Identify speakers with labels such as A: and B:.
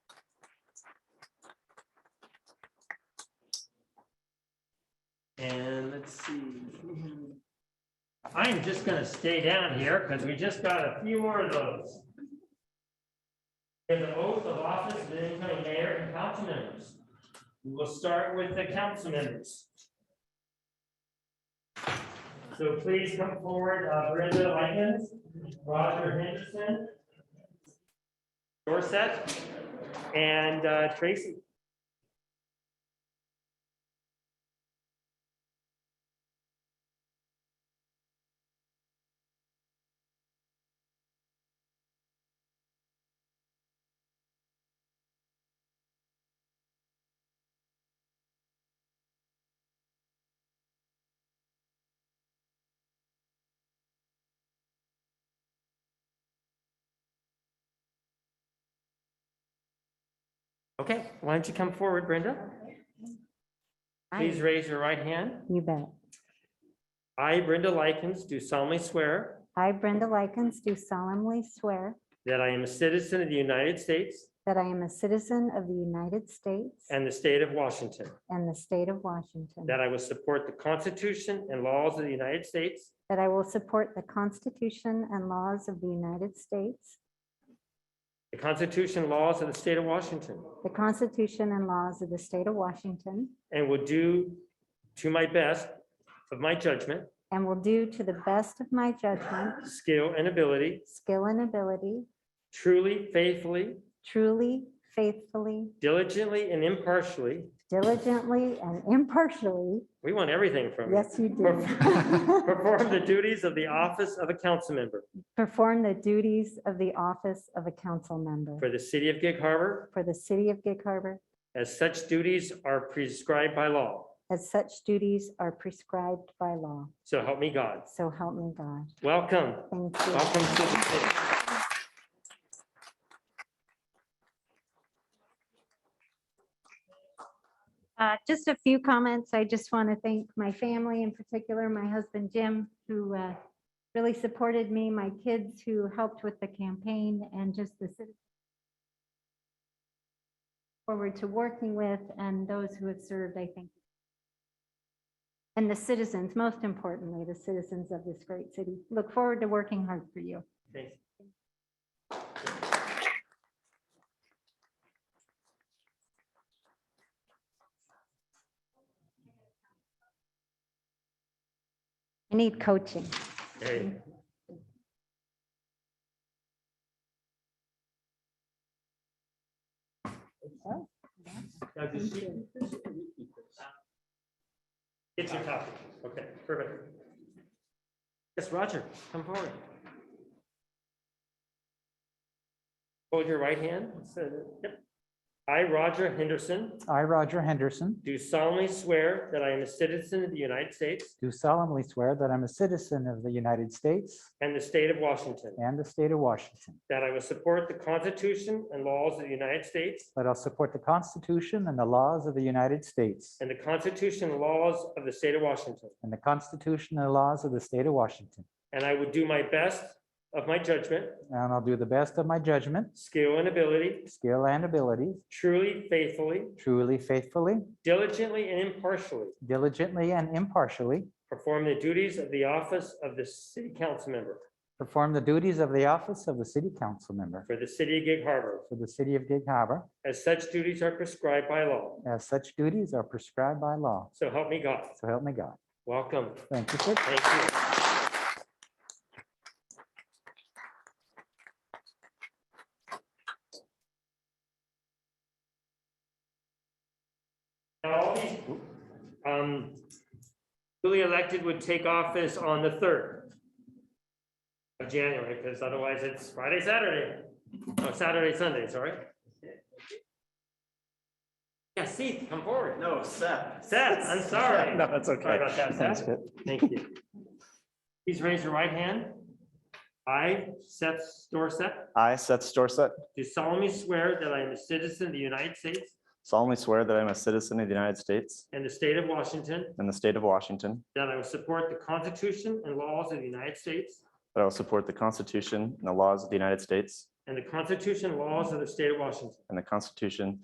A: And let's see. I'm just gonna stay down here because we just got a few more of those. And the oath of office of the incoming mayor and council members. We will start with the council members. So please come forward, uh, Brenda Lyons, Roger Henderson, Dorset, and uh, Tracy. Okay, why don't you come forward, Brenda? Please raise your right hand.
B: You bet.
A: I, Brenda Lykins, do solemnly swear
B: I, Brenda Lykins, do solemnly swear
A: that I am a citizen of the United States
B: that I am a citizen of the United States
A: and the state of Washington,
B: and the state of Washington,
A: that I will support the Constitution and laws of the United States
B: that I will support the Constitution and laws of the United States,
A: The Constitution and laws of the state of Washington
B: the Constitution and laws of the state of Washington,
A: and will do to my best of my judgment,
B: and will do to the best of my judgment,
A: skill, and ability,
B: skill, and ability,
A: truly, faithfully,
B: truly, faithfully,
A: diligently, and impartially.
B: diligently, and impartially.
A: We want everything from you.
B: Yes, you do.
A: Perform the duties of the office of a council member
B: Perform the duties of the office of a council member
A: for the city of Gig Harbor,
B: for the city of Gig Harbor
A: as such duties are prescribed by law.
B: as such duties are prescribed by law.
A: So help me God.
B: So help me God.
A: Welcome.
B: Thank you.
A: Welcome to the city.
B: Uh, Just a few comments. I just want to thank my family, in particular, my husband Jim, who uh, really supported me, my kids who helped with the campaign, and just the citizens forward to working with, and those who have served, I think. And the citizens, most importantly, the citizens of this great city. Look forward to working hard for you.
A: Thanks.
B: I need coaching.
A: Hey. Now, does she- It's your copy. Okay, perfect. Yes, Roger, come forward. Hold your right hand. So, yep. I, Roger Henderson,
C: I, Roger Henderson,
A: do solemnly swear that I am a citizen of the United States
C: do solemnly swear that I'm a citizen of the United States
A: and the state of Washington,
C: and the state of Washington,
A: that I will support the Constitution and laws of the United States
C: that I'll support the Constitution and the laws of the United States
A: And the Constitution and laws of the state of Washington.
C: and the Constitution and laws of the state of Washington.
A: And I will do my best of my judgment,
C: And I'll do the best of my judgment,
A: skill, and ability,
C: skill, and ability,
A: truly, faithfully,
C: truly, faithfully,
A: diligently, and impartially
C: diligently, and impartially,
A: perform the duties of the office of the city council member
C: perform the duties of the office of the city council member
A: for the city of Gig Harbor,
C: for the city of Gig Harbor,
A: as such duties are prescribed by law.
C: as such duties are prescribed by law.
A: So help me God.
C: So help me God.
A: Welcome.
C: Thank you, sir.
A: Thank you. Now, all these, um, duly elected would take office on the third of January, because otherwise it's Friday, Saturday, oh, Saturday, Sunday, sorry. Yeah, Seth, come forward.
D: No, Seth.
A: Seth, I'm sorry.
D: No, that's okay.
A: Sorry about that,
D: That's
A: Seth.
D: good.
A: Thank you. Please raise your right hand. I, Seth Dorset,
D: I, Seth Storsett,
A: do solemnly swear that I am a citizen of the United States
D: solemnly swear that I'm a citizen of the United States
A: and the state of Washington,
D: and the state of Washington,
A: that I will support the Constitution and laws of the United States
D: that I will support the Constitution and the laws of the United States
A: and the Constitution and laws of the state of Washington,
D: and the Constitution